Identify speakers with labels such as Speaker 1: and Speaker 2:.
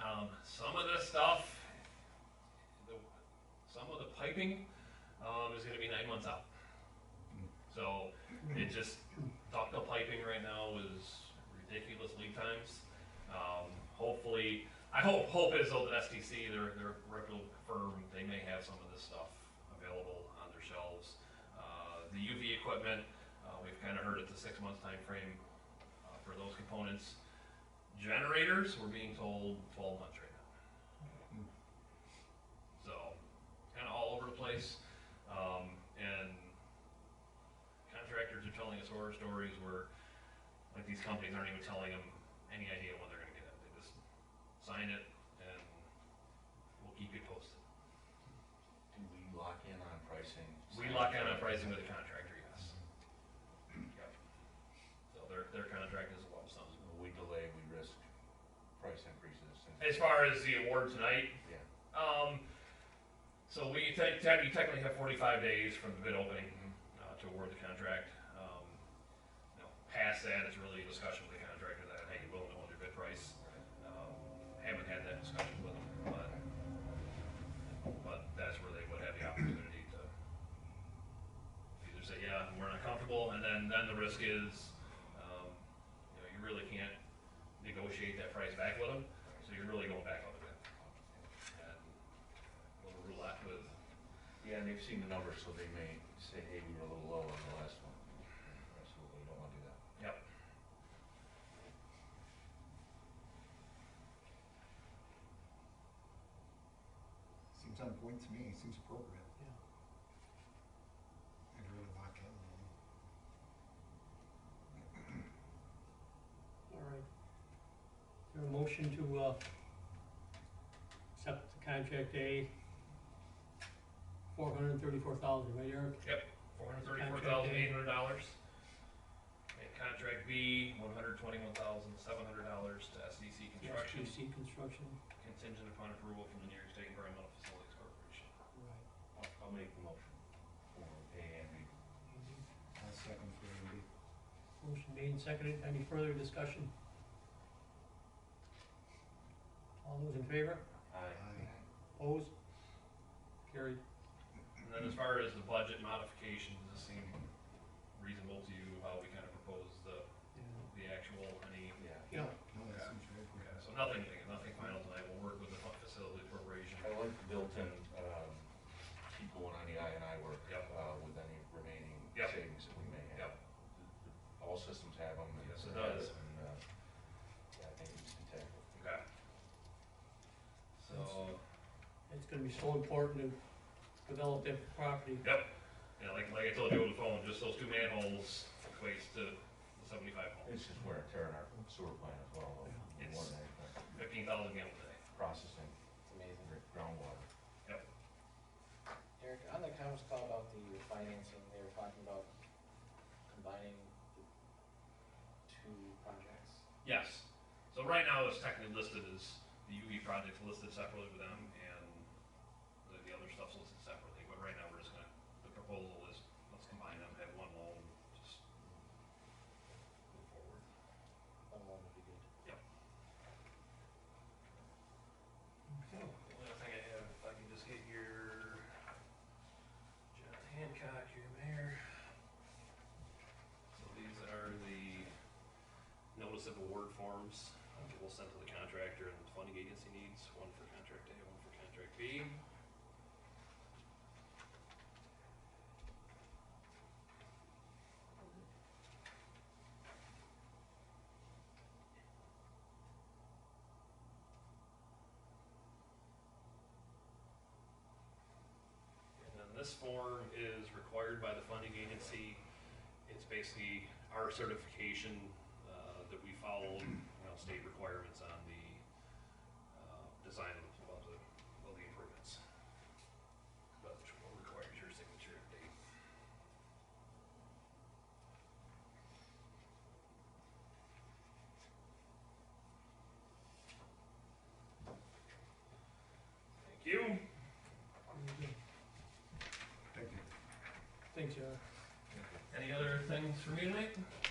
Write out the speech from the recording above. Speaker 1: Um, Some of the stuff, the, some of the piping, um, is gonna be nine months out. So it just, ductile piping right now is ridiculous lead times. Um, hopefully, I hope, hope is though that STC, they're, they're a reputable firm, they may have some of this stuff available on their shelves. Uh, the UV equipment, uh, we've kinda heard it's a six month time frame uh, for those components. Generators, we're being told twelve months right now. So, kinda all over the place, um, and contractors are telling us horror stories where, like, these companies aren't even telling them any idea when they're gonna get it, they just sign it and we'll keep you posted.
Speaker 2: Do we lock in on pricing?
Speaker 1: We lock in on pricing with the contractor, yes. Yep. So their, their contract is a lump sum.
Speaker 2: When we delay, we risk price increases.
Speaker 1: As far as the award tonight,
Speaker 2: Yeah,
Speaker 1: Um, so we te- te- you technically have forty-five days from the bid opening, uh, to award the contract. Um, you know, Past that, it's really a discussion with the contractor that, hey, you willing to hold your bid price? Um, Haven't had that discussion with them, but, but that's where they would have the opportunity to either say, yeah, we're not comfortable, and then, then the risk is, um, you know, you really can't negotiate that price back with them, so you're really going back on the bid. And little roulette with.
Speaker 2: yeah, and they've seen the numbers, so they may say, hey, we were a little low on the last one. Absolutely, we don't wanna do that.
Speaker 1: Yep.
Speaker 3: Seems on point to me, seems appropriate. I'd really lock in. on it.
Speaker 4: All right. Is there a motion to, uh, accept the contract A? Four hundred and thirty-four thousand, right, Eric?
Speaker 1: Yep. Four hundred thirty-four thousand eight hundred dollars. And contract B, one hundred twenty-one thousand seven hundred dollars to SDC Construction,
Speaker 4: SGC Construction,
Speaker 1: contingent upon approval from the New York State Environmental Facilities Corporation.
Speaker 4: right.
Speaker 2: I'll, I'll make the motion for A and B.
Speaker 3: I'll second for A and B.
Speaker 4: Motion made and seconded, any further discussion? All those in favor?
Speaker 2: Aye.
Speaker 3: Aye.
Speaker 4: Opposed? Carried.
Speaker 1: And then as far as the budget modifications, does this seem reasonable to you, how we kind of propose the,
Speaker 4: Yeah.
Speaker 1: the actual, any?
Speaker 2: Yeah,
Speaker 4: Yeah,
Speaker 3: No, that seems very
Speaker 1: Okay,
Speaker 3: appropriate.
Speaker 1: so nothing, nothing final tonight, we'll work with the facilities corporation.
Speaker 2: I like the built-in, um, keep going on the I and I work.
Speaker 1: Yep.
Speaker 2: Uh, with any remaining
Speaker 1: Yep.
Speaker 2: savings that we may have.
Speaker 1: Yep.
Speaker 2: All systems have them. and-
Speaker 1: Yes, it does.
Speaker 2: And, uh, yeah, I think it's integral.
Speaker 1: Okay. So.
Speaker 4: it's gonna be so important to develop that property.
Speaker 1: Yep. Yeah, like, like I told you on the phone, just those two manholes equates to the seventy-five hole,
Speaker 2: It's just wear and tear in our sewer plant as well, though. We
Speaker 1: It's-
Speaker 2: want that, uh,
Speaker 1: fifteen thousand gallons a day.
Speaker 2: Processing
Speaker 5: Amazing.
Speaker 2: gr- groundwater.
Speaker 5: Eric, on the conference call about the financing, they were talking about combining the two projects.
Speaker 1: Yes. So right now it's technically listed as, the UV project's listed separately with them and the, the other stuff's listed separately, but right now we're just gonna, the proposal is, let's combine them, have one loan, just move forward.
Speaker 5: That one would be good.
Speaker 1: The only other thing I have, if I can just get your John Hancock, your mayor. So these are the notice of award forms uh, that we'll send to the contractor and the funding agency needs, one for contract A, one for contract B. And then this form is required by the funding agency. It's basically our certification uh, that we follow, you know, state requirements on the uh, design of the, of the, of the improvements. But it requires your signature and date. Thank you.
Speaker 4: Very
Speaker 3: Thank
Speaker 4: good.
Speaker 3: you.
Speaker 4: Thanks, Eric.
Speaker 1: Any other things for me tonight?